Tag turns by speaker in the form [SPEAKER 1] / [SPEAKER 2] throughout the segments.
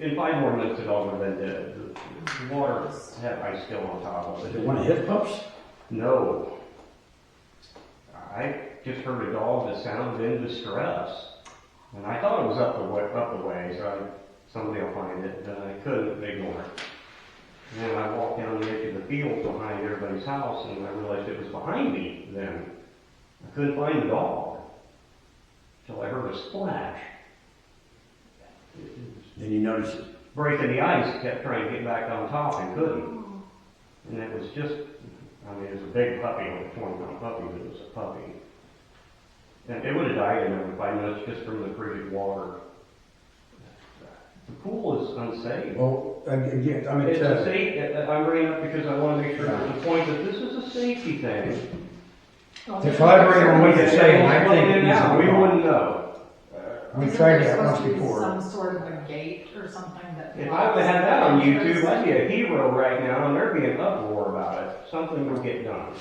[SPEAKER 1] have more lifted over than the, the water have ice still on top of
[SPEAKER 2] They
[SPEAKER 1] it.
[SPEAKER 2] want to hit pumps?
[SPEAKER 1] No. I just heard a dog that sounded in distress. And I thought it was up the way, up the way, so I, somebody will find it, but I couldn't ignore it. And then I walked down the edge of the field behind everybody's house and I realized it was behind me then. I couldn't find the dog. Till I heard a splash.
[SPEAKER 2] Then you notice it.
[SPEAKER 1] breaking the ice, kept trying to get back on top and couldn't. And it was just, I mean, it was a big puppy, like a twenty-pound puppy, but it was a puppy. And it would have died in another five minutes just from the frigid water. The pool is unsafe.
[SPEAKER 3] Well, again, I mean,
[SPEAKER 1] It's
[SPEAKER 3] it's,
[SPEAKER 1] a
[SPEAKER 3] uh,
[SPEAKER 1] safe, I- I- I'm bringing it up because I want to make sure there's a point that this is a safety thing.
[SPEAKER 3] if I were anyone, we could say, and I think
[SPEAKER 1] It's
[SPEAKER 3] it's a
[SPEAKER 1] out, We
[SPEAKER 3] problem.
[SPEAKER 1] wouldn't know.
[SPEAKER 3] We tried that
[SPEAKER 4] There's
[SPEAKER 3] once
[SPEAKER 4] supposed to be
[SPEAKER 3] before.
[SPEAKER 4] Some sort of a gate or something that.
[SPEAKER 1] If I would have had that on YouTube, I'd be a hero right now and there'd be an uproar about it. Something would get done.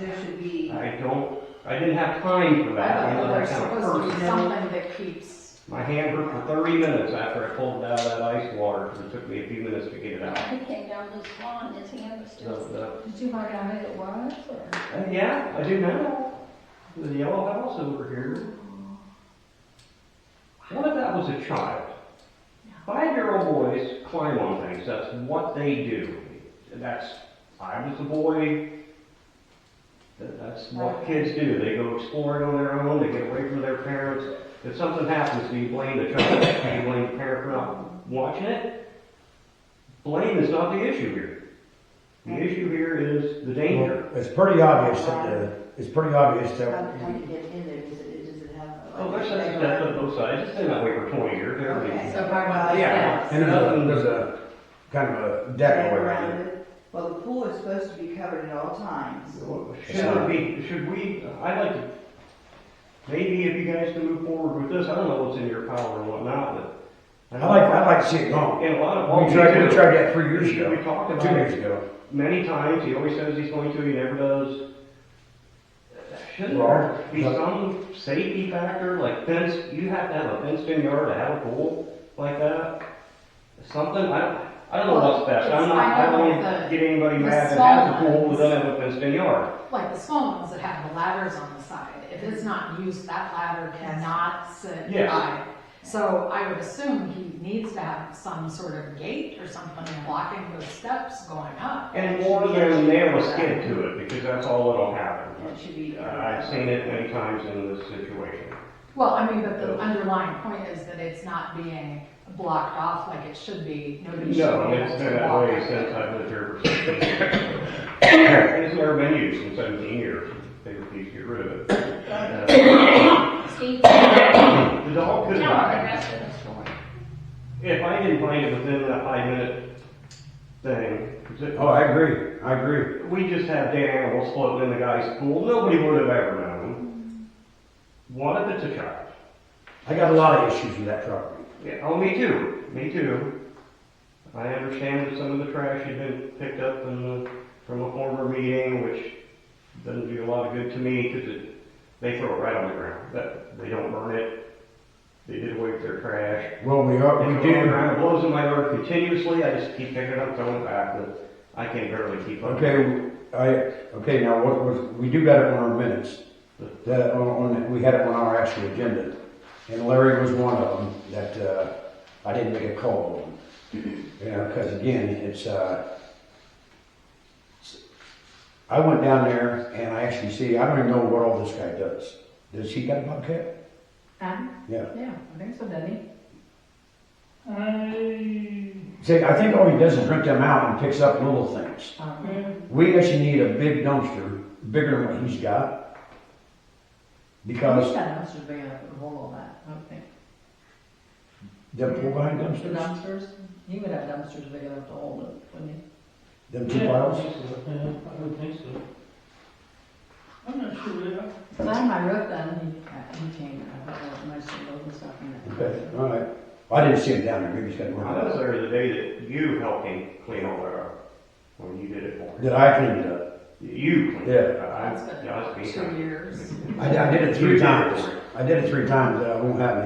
[SPEAKER 5] There should be,
[SPEAKER 1] I don't, I didn't have time for that.
[SPEAKER 4] I
[SPEAKER 1] I
[SPEAKER 4] don't know,
[SPEAKER 1] let
[SPEAKER 4] there's
[SPEAKER 1] that kind of
[SPEAKER 4] supposed to
[SPEAKER 1] person.
[SPEAKER 4] be something that keeps,
[SPEAKER 1] My hand hurt for thirty minutes after I pulled it out of that ice water, and it took me a few minutes to get it out.
[SPEAKER 6] He came down this lawn, his hand was
[SPEAKER 1] So,
[SPEAKER 6] still.
[SPEAKER 1] uh,
[SPEAKER 6] Did you find out who it was, or?
[SPEAKER 1] and Uh, yeah, I do now. The yellow house over here. What if that was a child? Five-year-old boys climb on things, that's what they do. That's, I was a boy, That- that's what kids do, they go exploring on their own, they get away from their parents. If something happens, do you blame the child, do you blame the parent for not watching it? Blame is not the issue here. The issue here is the danger.
[SPEAKER 3] well, it's pretty obvious that, uh, it's pretty obvious
[SPEAKER 5] how,
[SPEAKER 3] that,
[SPEAKER 5] how
[SPEAKER 2] Uh,
[SPEAKER 5] do you get in there, does it, does it have?
[SPEAKER 1] Oh, there's such a step on both sides, it's been that way for twenty years,
[SPEAKER 5] Okay,
[SPEAKER 1] everything.
[SPEAKER 5] so by well,
[SPEAKER 1] Yeah.
[SPEAKER 5] yeah.
[SPEAKER 3] and
[SPEAKER 2] uh,
[SPEAKER 3] there's a, there's a kind of a deck over
[SPEAKER 5] around
[SPEAKER 3] it.
[SPEAKER 5] it. Well, the pool is supposed to be covered at all times.
[SPEAKER 1] Should it be, should we, I'd like to, maybe if you guys can move forward with this, I don't know what's in your power and whatnot, but.
[SPEAKER 3] I like, I'd like to see it gone.
[SPEAKER 1] In a lot of.
[SPEAKER 3] We tried, we tried that three years
[SPEAKER 1] We
[SPEAKER 3] ago,
[SPEAKER 1] talked
[SPEAKER 3] two
[SPEAKER 1] about
[SPEAKER 3] years
[SPEAKER 1] it
[SPEAKER 3] ago.
[SPEAKER 1] many times, he always says he's going to, he never does. Shouldn't
[SPEAKER 3] Well,
[SPEAKER 1] there be
[SPEAKER 3] but-
[SPEAKER 1] some safety factor, like fence, you have to have a fenced-in yard to have a pool like that? Something, I don't, I don't know
[SPEAKER 4] Well,
[SPEAKER 1] what's best, I'm
[SPEAKER 4] it's-
[SPEAKER 1] not,
[SPEAKER 4] I
[SPEAKER 1] I don't
[SPEAKER 4] know
[SPEAKER 1] wanna
[SPEAKER 4] the-
[SPEAKER 1] get anybody
[SPEAKER 4] the
[SPEAKER 1] mad that has a
[SPEAKER 4] small
[SPEAKER 1] pool that
[SPEAKER 4] ones.
[SPEAKER 1] doesn't have a fenced-in yard.
[SPEAKER 4] like the small ones that have the ladders on the side. If it's not used, that ladder cannot sit
[SPEAKER 1] Yes.
[SPEAKER 4] by. So I would assume he needs to have some sort of gate or something blocking those steps going up.
[SPEAKER 1] And more than nail a skid to it, because that's all that'll happen.
[SPEAKER 5] It should be.
[SPEAKER 1] Uh, I've seen it many times in this situation.
[SPEAKER 4] Well, I mean, but
[SPEAKER 1] Oh.
[SPEAKER 4] the underlying point is that it's not being blocked off like it should be. Nobody should be
[SPEAKER 1] No,
[SPEAKER 4] able
[SPEAKER 1] it's
[SPEAKER 4] to
[SPEAKER 1] been that
[SPEAKER 4] walk
[SPEAKER 1] way
[SPEAKER 4] up
[SPEAKER 1] since
[SPEAKER 4] it.
[SPEAKER 1] I've lived here for sixteen years. It's never been used in seventeen years, they refused to get rid of it. Uh,
[SPEAKER 6] Steve, tell
[SPEAKER 1] The dog
[SPEAKER 6] the
[SPEAKER 1] could die.
[SPEAKER 6] rest of the story.
[SPEAKER 1] If I didn't find it within that five minute thing, 'cause it-
[SPEAKER 3] Oh, I agree, I agree.
[SPEAKER 1] we just have dead animals floating in the guy's pool, nobody would have ever known. What if it's a child?
[SPEAKER 3] I got a lot of issues with that property.
[SPEAKER 1] Yeah, oh, me too, me too. I understand that some of the trash had been picked up in the, from a former meeting, which doesn't do a lot of good to me, because it, they throw it right on the ground, that, they don't burn it. They did away with their trash.
[SPEAKER 3] Well, we are,
[SPEAKER 1] It goes
[SPEAKER 3] we
[SPEAKER 1] on the
[SPEAKER 3] do,
[SPEAKER 1] ground, It blows in my yard continuously, I just keep picking it up, throwing it back, but I can barely keep up.
[SPEAKER 3] okay, I, okay, now, what was, we do got it on our minutes. That, on, on, we had it on our actual agenda, and Larry was one of them that, uh, I didn't make a call on. You know, because again, it's, uh, I went down there and I actually see, I don't even know what all this guy does. Does he got a bobcat?
[SPEAKER 5] Um,
[SPEAKER 3] Yeah.
[SPEAKER 5] yeah, I think so, doesn't he?
[SPEAKER 3] See, I think all he does is rent them out and picks up little things.
[SPEAKER 5] Um,
[SPEAKER 3] We actually need a big dumpster, bigger than what he's got.
[SPEAKER 5] I
[SPEAKER 3] Because
[SPEAKER 5] wish that house was big enough to hold all that, I don't think.
[SPEAKER 3] them two behind
[SPEAKER 5] The
[SPEAKER 3] dumpsters,
[SPEAKER 5] dumpsters, he would have dumpsters big enough to hold it, wouldn't he?
[SPEAKER 3] them two piles.
[SPEAKER 7] I would think so. I'm not sure, yeah.
[SPEAKER 5] So I had my roof done, he, he came, I thought that was nice to load and stuff in it.
[SPEAKER 3] Okay, all right. I didn't see him down there, maybe he's got
[SPEAKER 1] I was
[SPEAKER 3] one.
[SPEAKER 1] there the day that you helped him clean all that up, when you did it for him.
[SPEAKER 3] Did I clean it up?
[SPEAKER 1] You cleaned it, up. I,
[SPEAKER 4] That's
[SPEAKER 1] I was being.
[SPEAKER 4] been two years.
[SPEAKER 3] I, I did it
[SPEAKER 1] You
[SPEAKER 3] three
[SPEAKER 1] did it
[SPEAKER 3] times.
[SPEAKER 1] for him.
[SPEAKER 3] I did it three times, uh, it won't happen